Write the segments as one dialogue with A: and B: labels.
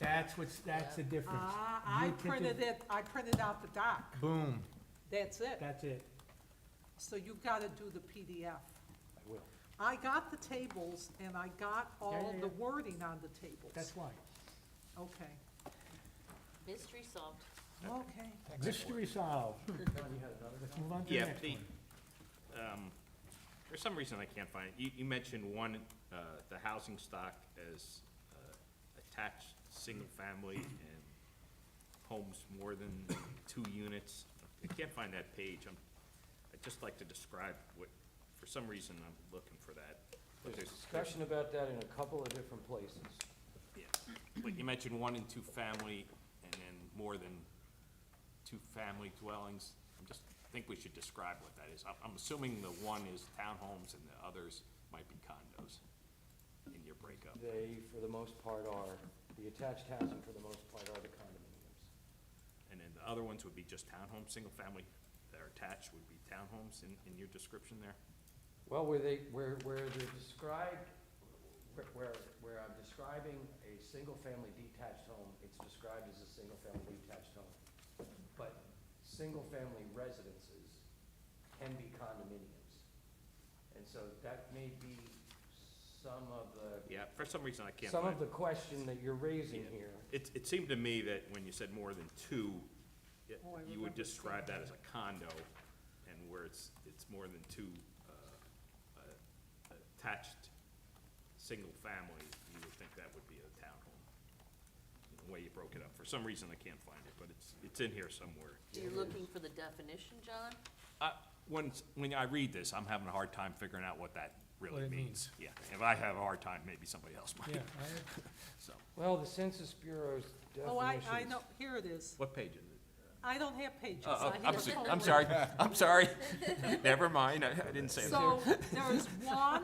A: That's what's, that's the difference.
B: Ah, I
A: You printed-
B: printed it, I printed out the doc,
A: Boom,
B: that's it.
A: that's it.
B: So you gotta do the PDF.
A: I will.
B: I got the tables and I got all
A: yeah,
B: the
A: yeah.
B: wording on the tables.
A: That's why.
B: Okay,
C: Mystery solved.
B: okay.
A: Mystery solved. Let's move on to the
D: Yeah,
A: next
D: the,
A: one.
D: um, for some reason I can't find it, you, you mentioned one, uh, the housing stock as, uh, attached, single-family and homes more than two units. I can't find that page, I'm, I'd just like to describe what, for some reason I'm looking for that. But
E: There's discussion about that in a couple of different places.
D: Yeah, but you mentioned one and two-family and then more than two-family dwellings. I just think we should describe what that is. I'm, I'm assuming the one is townhomes and the others might be condos in your breakup.
E: They, for the most part, are, the attached housing, for the most part, are the condominiums.
D: And then the other ones would be just townhomes, single-family that are attached would be townhomes in, in your description there?
E: Well, where they, where, where they're described, where- where, where I'm describing a single-family detached home, it's described as a single-family detached home. But single-family residences can be condominiums. And so that may be some of the,
D: Yeah, for some reason I can't
E: some
D: find.
E: of the question that you're raising
D: Yeah.
E: here.
D: It, it seemed to me that when you said more than two, it-
B: Oh, I
D: you would
B: remember
D: describe that as a condo, and where it's, it's more than two, uh, uh, attached, single family, you would think that would be a townhome. The way you broke it up, for some reason I can't find it, but it's, it's in here somewhere.
C: You're looking for the definition, John?
D: I, when, when I read this, I'm having a hard time figuring out what that
A: What
D: really
A: it
D: means. Yeah, if I have a hard time, maybe somebody else
A: Yeah,
D: might,
A: I-
D: so.
E: Well, the Census Bureau's definitions.
B: Oh, I, I know, here it is.
D: What page is it?
B: I don't have pages.
A: Uh,
D: Oh, oh,
B: I
D: I'm,
B: have
D: so-
B: folders.
D: I'm sorry, I'm sorry. Never mind, I, I didn't say that.
B: So there is one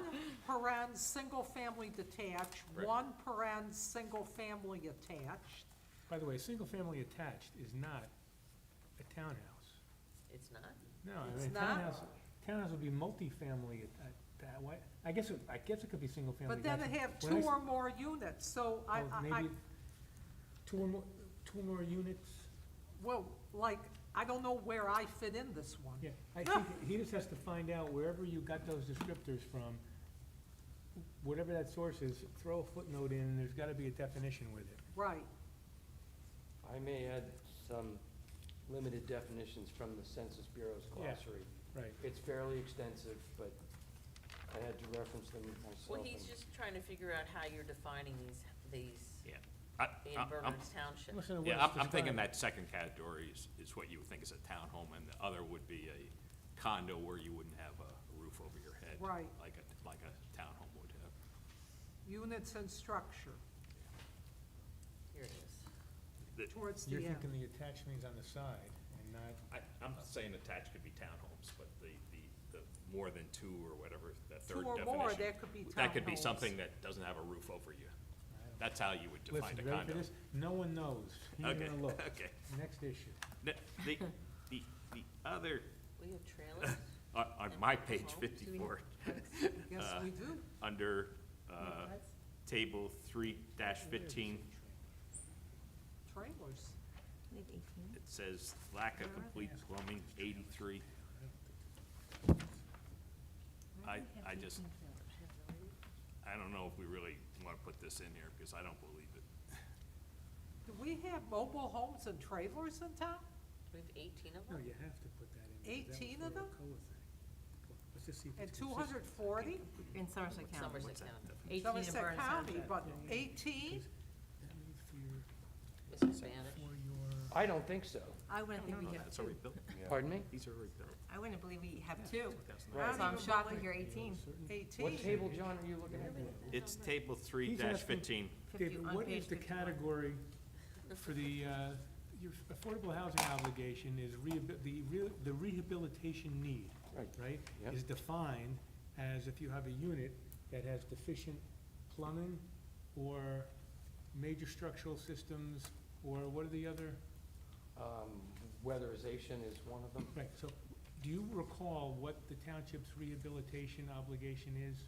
B: paren, single-family detached,
D: Right.
B: one paren, single-family attached.
A: By the way, single-family attached is not a townhouse.
C: It's not?
A: No, I
B: It's
A: mean,
B: not?
A: townhouse, townhouse would be multifamily, at- at that way. I guess, it- I guess it could be single-family.
B: But then they
A: attached. When
B: have
A: I
B: two
A: s-
B: or more units, so I,
A: well,
B: I, I,
A: maybe Two or more, two or more units,
B: well, like, I don't know where I fit in this one.
A: yeah. I think he just has to find out wherever you got those descriptors from, whatever that source is, throw a footnote in, and there's gotta be a definition with it.
B: Right,
E: I may add some limited definitions from the Census Bureau's
A: Yeah.
E: glossary.
A: Right.
E: It's fairly extensive, but I had to reference them myself.
C: Well, he's
E: and-
C: just trying to figure out how you're defining these, these
D: Yeah, I,
C: in
D: I'm- I'm,
C: Berners Township.
A: Listen to what
D: yeah,
A: it's
D: I'm, I'm thinking
A: described.
D: that second category is, is what you would think is a townhome, and the other would be a condo where you wouldn't have a roof over your head.
B: Right.
D: Like a, like a townhome would have.
B: units and structure
C: Here it is.
D: The-
B: towards the
A: You're
B: end.
A: thinking the attached means on the side and not,
D: I, I'm not saying attached could be townhomes, but the, the, the more than two or whatever, that
B: Two
D: third
B: or
D: definition.
B: more, that could be
D: That could be
B: townhomes.
D: something that doesn't have a roof over you.
A: I don't-
D: That's how you would define
A: listen,
D: a
A: you ready for
D: condo.
A: this? No one knows. He's
D: Okay,
A: gonna look.
D: okay.
A: Next issue.
D: The, the, the, the other,
C: We have trailers?
D: on, on my page fifty-four,
B: Yes,
D: uh,
B: we do.
D: under, uh, table three dash fifteen,
B: Trailers.
D: it says lack of complete plumbing, eighty-three. I, I just, I don't know if we really wanna put this in here, because I don't believe it.
B: Do we have mobile homes and trailers in town?
C: We have eighteen of
A: No,
C: them?
A: you have to put that in. because that
B: 18
A: was
B: of
A: for
B: them?
A: Alcoa thing. Well, Let's just see if
B: And
A: it's
B: two
A: consistent.
B: hundred forty?
F: In Somerset County.
C: Somerset County.
F: Eighteen in
B: Somerset
F: Burns
B: County,
F: Township.
B: but eighteen?
A: That means for your,
C: It's in Spanish.
A: for your,
E: I don't think so.
F: I wouldn't think
D: Oh,
F: we have
D: That's
F: two.
D: already built,
E: Pardon me?
D: these are already built.
F: I wouldn't believe we have two.
B: I
E: Right.
B: don't
F: So I'm
B: even
F: shocked we
B: believe-
F: hear eighteen.
A: certain.
E: What
B: Eighteen?
E: table, John, are you looking at?
D: It's table three
A: He's
D: dash
A: asking-
D: fifteen.
F: Fifty
A: David,
F: on
A: what
F: page
A: is the
F: 51.
A: category for the, uh, your affordable housing obligation is rehabi- the real, the rehabilitation need,
E: Right.
A: right?
E: Yep.
A: Is defined as if you have a unit that has deficient plumbing or major structural systems, or what are the other?
E: Um, Weatherization is one of them.
A: Right, so, do you recall what the township's rehabilitation obligation is?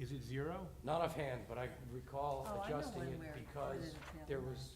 A: Is it zero?
E: Not offhand, but I recall
F: Oh, I know
E: adjusting
F: one
E: it
F: where it
E: because
F: is a
E: there
F: trailer.
E: was